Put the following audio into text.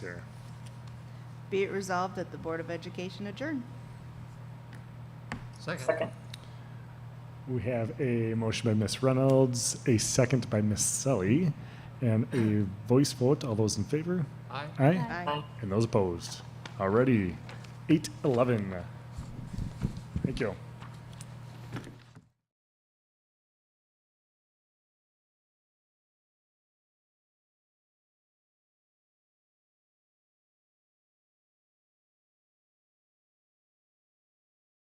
Sure. Be it resolved that the Board of Education adjourn. Second. We have a motion by Ms. Reynolds, a second by Ms. Sully, and a voice vote. All those in favor? Aye. Aye. And those opposed? Alrighty, eight eleven. Thank you.